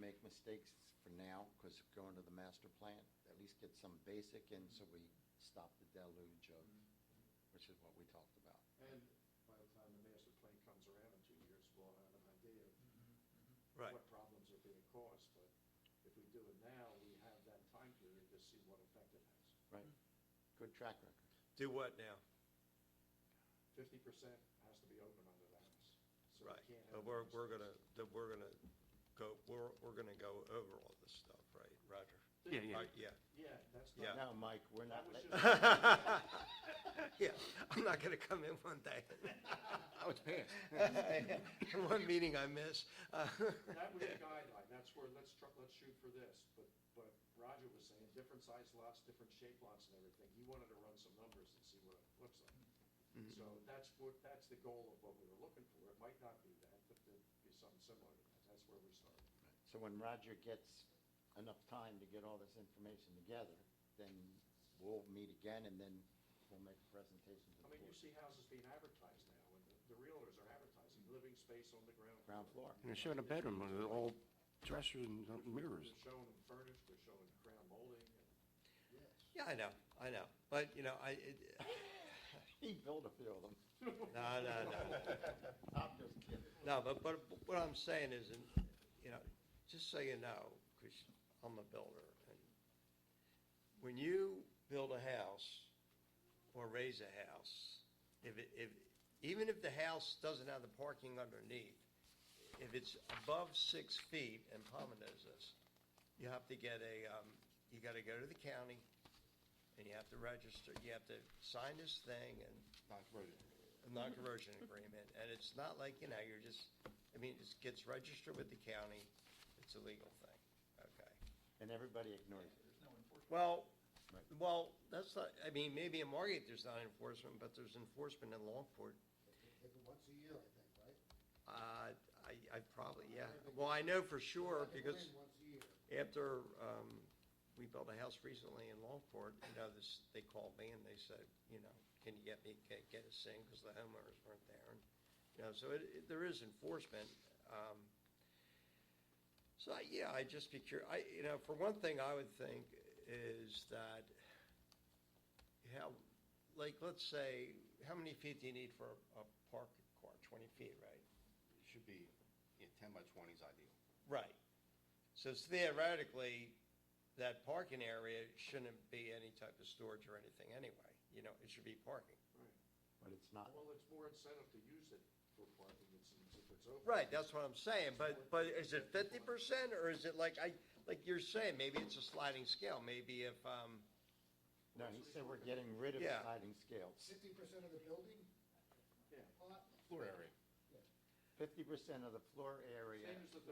make mistakes for now, because going to the master plan, at least get some basic in so we stop the deluge of, which is what we talked about. And by the time the master plan comes around in two years, we'll have an idea of Mm-hmm, Right. what problems are being caused. But if we do it now, we have that time period to see what effect it has. Right. Good track record. Do what now? Fifty percent has to be open under that. So we Right, can't have but Uh, we're, any we're gonna, mistakes. that we're gonna go, we're, we're gonna go over all this stuff, right, Roger? Yeah, yeah. Right, Yeah, Yeah, that's Yeah. Now, not. Mike, we're That not, let- was just, that yeah, I'm not gonna come in one day, oh, it's passed. one meeting I miss. Uh, was a guideline, that's where, let's, tr- let's shoot for this, but, but Roger was saying, different size lots, different shape lots and everything, he wanted to run some numbers and see what it looks like. So that's what, that's the goal of what we were looking for, it might not be that, but it'd be something similar to that, that's where we started. So when Roger gets enough time to get all this information together, then we'll meet again and then we'll make a presentation to I the mean, you board. see houses being advertised now, and the- the realtors are advertising living space on the ground. Ground floor. And it's showing a bedroom with all dressers and mirrors. They're showing them furnished, they're showing crown molding, and, yes. Yeah, I know, I know, but, you know, I, it, He built a few of them. no, no, no. I'm just kidding. No, but, but what I'm saying is, and, you know, just so you know, because I'm a builder, and when you build a house or raise a house, if it, if, even if the house doesn't have the parking underneath, if it's above six feet, and Palma knows this, you have to get a, um, you gotta go to the county, and you have to register, you have to sign this thing, and a non-conversion agreement, and it's not like, you know, you're just, I mean, it gets registered with the county, it's a legal thing, okay? And everybody ignores it. Well, Right. well, that's not, I mean, maybe in Margate there's not enforcement, but there's enforcement in Longport. Take it once a year, I think, right? Uh, I, I probably, yeah, well, I know for sure, Like a because plan Once a year. after, um, we built a house recently in Longport, you know, this, they called me and they said, you know, can you get me, get, get us in, because the homeowners weren't there, and, you know, so it, it, there is enforcement, um, So, I- yeah, I'd just be curious, I, you know, for one thing, I would think is that, how, like, let's say, how many feet do you need for a a park car? Twenty feet, right? It should be, yeah, ten by twenty is ideal. Right. So theoretically, that parking area shouldn't be any type of storage or anything anyway, you know, it should be parking. Right. But it's not. Well, it's more incentive to use it for parking, it's, if it's open. Right, that's what I'm saying, but, but is it fifty percent, or is it like, I, like you're saying, maybe it's a sliding scale, maybe if, um, No, he said we're getting rid of Yeah. sliding scales. Fifty percent of the building Yeah. lot? Floor area. Fifty percent of the floor area Same as the